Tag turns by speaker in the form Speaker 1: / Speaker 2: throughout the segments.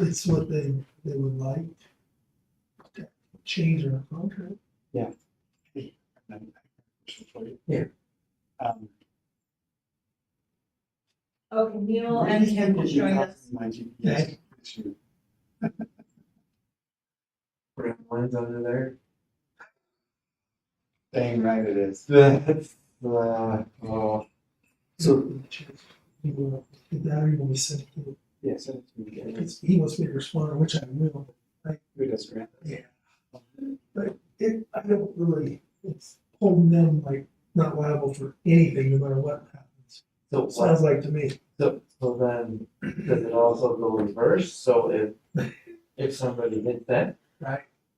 Speaker 1: It's- It's what they, they would like. to Change our contract.
Speaker 2: Yeah.
Speaker 3: Um,
Speaker 4: Okay, Neil
Speaker 3: where
Speaker 4: and
Speaker 3: do you
Speaker 4: Kim
Speaker 3: think
Speaker 4: just
Speaker 3: you
Speaker 4: joined
Speaker 3: have
Speaker 4: us.
Speaker 3: my GPS issue?
Speaker 2: Red lines under there.
Speaker 3: Dang right it is.
Speaker 2: That's, uh, oh. So,
Speaker 1: He will, if that, he will be sent to the-
Speaker 3: Yeah, send it to me.
Speaker 1: if
Speaker 3: again.
Speaker 1: it's- He wants me to respond, which I will.
Speaker 3: Who does grant?
Speaker 1: Yeah. But it, I don't really, it's holding them like not liable for anything, no matter what happens.
Speaker 2: so what,
Speaker 1: Sounds like to me.
Speaker 2: so, so then, does it also go reverse? So if, if somebody hit that,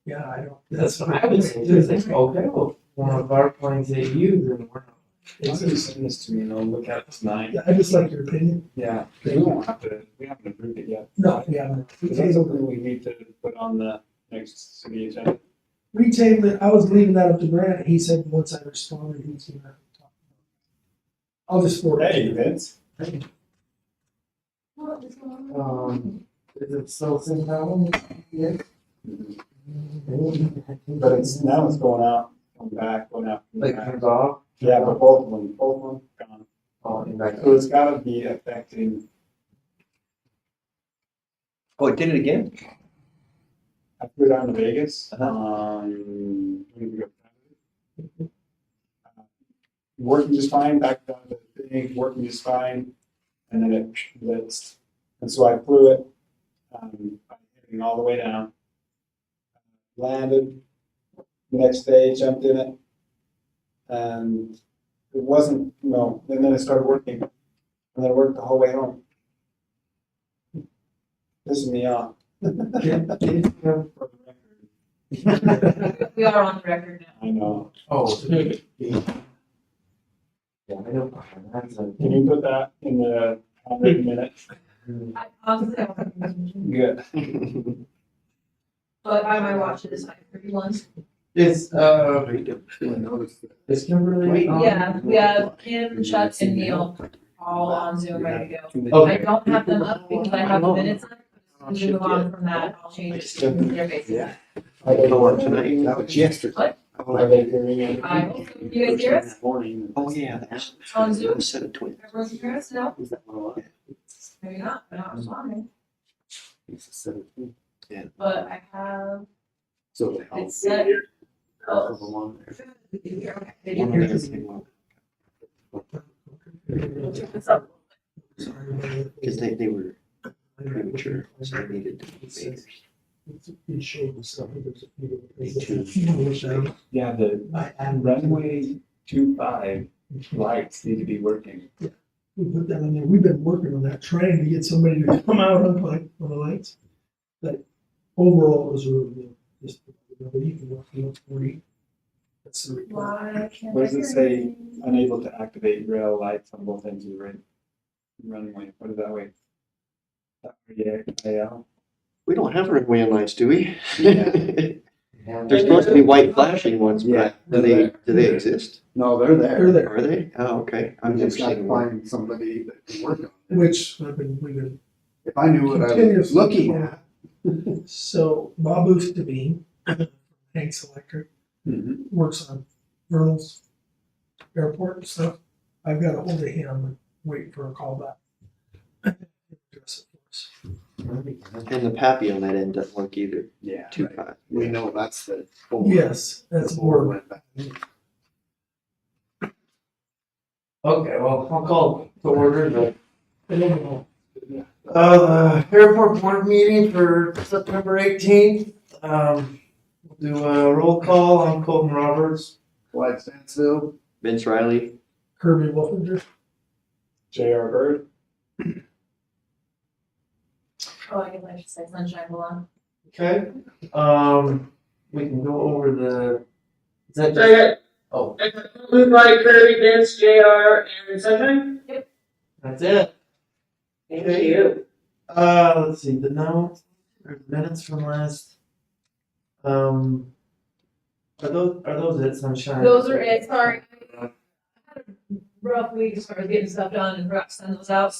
Speaker 1: Yeah, I don't.
Speaker 2: that's what I would say, just like, okay, well, one of our planes hit you, then we're.
Speaker 3: It's just send this to me and I'll look at it tonight.
Speaker 1: Yeah, I just like your opinion.
Speaker 3: Yeah, because we won't have to, we haven't approved it yet.
Speaker 1: No, yeah. we
Speaker 3: 'Cause that's
Speaker 1: tabled it.
Speaker 3: something we need to put on the next city agenda.
Speaker 1: We tabled it. I was leaving that up to Brad. He said, once I responded, he's gonna talk. I'll just forward. it to you.
Speaker 3: Vince.
Speaker 4: What is going on?
Speaker 2: Um, is it still same problem? Yes.
Speaker 3: But it's, now it's going out, coming back, going out. coming
Speaker 2: Like
Speaker 3: back.
Speaker 2: comes off,
Speaker 3: Yeah, but both of them, both of them gone.
Speaker 2: oh, and back.
Speaker 3: So it's gotta be affecting,
Speaker 2: Oh, it did it again?
Speaker 3: I flew down to Vegas,
Speaker 2: Uh-huh.
Speaker 3: um, when did we go? Working just fine, back down to the thing, working just fine, and then it blitzed. And so I flew it, um, I'm heading all the way down. Landed, next day jumped in it. And it wasn't, you know, and then it started working, and then it worked the whole way home. Pissing me off. For the record.
Speaker 4: We are on record now.
Speaker 3: I know.
Speaker 2: Oh. Yeah, I know, that's a.
Speaker 3: Can you put that in the hundred minutes?
Speaker 4: I honestly, I wasn't listening,
Speaker 3: Good.
Speaker 4: but by my watch it is nine thirty-one.
Speaker 2: It's, uh, it's Kimberly.
Speaker 3: Oh.
Speaker 2: um,
Speaker 4: Yeah, we have Kim, Chuck, and Neil all on Zoom ready to go.
Speaker 2: Okay.
Speaker 4: I don't have them up because I have the minutes on. but as we Move on from that, I'll change it to their basis.
Speaker 2: I don't know what tonight.
Speaker 5: That was yesterday.
Speaker 4: What?
Speaker 3: Are they hearing it?
Speaker 4: I hope you guys hear us.
Speaker 3: Morning.
Speaker 5: Oh, yeah.
Speaker 4: On Zoom?
Speaker 5: Set of twins.
Speaker 4: Everyone can hear us now?
Speaker 5: Is that what it
Speaker 4: Maybe not, but not responding.
Speaker 5: was? It's a set of twins.
Speaker 4: But I have,
Speaker 5: So they all.
Speaker 4: it's set.
Speaker 5: All of
Speaker 4: Oh.
Speaker 5: them on there. One of
Speaker 4: We'll
Speaker 5: them's in one.
Speaker 4: check this out.
Speaker 1: Sorry.
Speaker 5: Cause they, they were premature, so they needed to be babies.
Speaker 1: It's- It showed stuff. There's a few different
Speaker 5: Me
Speaker 1: things.
Speaker 5: too.
Speaker 1: You know, which I-
Speaker 3: Yeah, the
Speaker 1: I- I'm-
Speaker 3: runway two five lights need to be working.
Speaker 1: We put that in there. We've been working on that, trying to get somebody to come out on light, on the lights. But overall, it was really good. Just, you know, you can look, you look forty. That's the report.
Speaker 4: Why can't
Speaker 3: What
Speaker 4: I
Speaker 3: does it
Speaker 4: hear
Speaker 3: say?
Speaker 4: anything?
Speaker 3: Unable to activate rail lights on both ends of the run- runway. What is that way? E Yeah, yeah.
Speaker 5: We don't have runway lights, do we?
Speaker 3: Yeah.
Speaker 2: uh,
Speaker 5: There's supposed to be white flashing ones, but do they, do they exist?
Speaker 3: No, they're there.
Speaker 1: They're there,
Speaker 5: Are they? Oh, okay. I've never
Speaker 6: It's like
Speaker 5: seen one.
Speaker 6: find somebody that can work on it.
Speaker 1: which I've been, we've been
Speaker 6: If I knew what I was
Speaker 1: Continuously.
Speaker 6: looking at,
Speaker 1: So Bob Oostbein, Hanks Electric, Mm-hmm.
Speaker 3: Mhm.
Speaker 1: works on Vernal's airport and stuff. I've got a hold of him and waiting for a call back. Address it for us.
Speaker 5: And the pappy on that end doesn't work either.
Speaker 3: Yeah.
Speaker 5: Too high.
Speaker 6: we know that's the. board.
Speaker 1: Yes, that's
Speaker 6: The board
Speaker 1: board.
Speaker 6: went back.
Speaker 2: Okay, well, I'll call to order the
Speaker 1: And overall,
Speaker 2: Uh, the airport board meeting for September eighteenth, um, we'll do a roll call, I'm Colton Roberts.
Speaker 6: Clyde Stansfield,
Speaker 5: Vince Riley,
Speaker 1: Kirby Wolfinger,
Speaker 3: J.R. Bird,
Speaker 4: Oh, I guess I should say sunshine belong.
Speaker 2: Okay. Um, we can go over the, is that just, oh,
Speaker 7: Moved by Kirby, Vince, JR, and Sunshine?
Speaker 2: that's it?
Speaker 7: Thank you.
Speaker 2: Uh, let's see, the notes, or the minutes from last, um, are those, are those it, Sunshine?
Speaker 4: Those are it, sorry. I had a Rough week as far as getting stuff done and rough sending those out,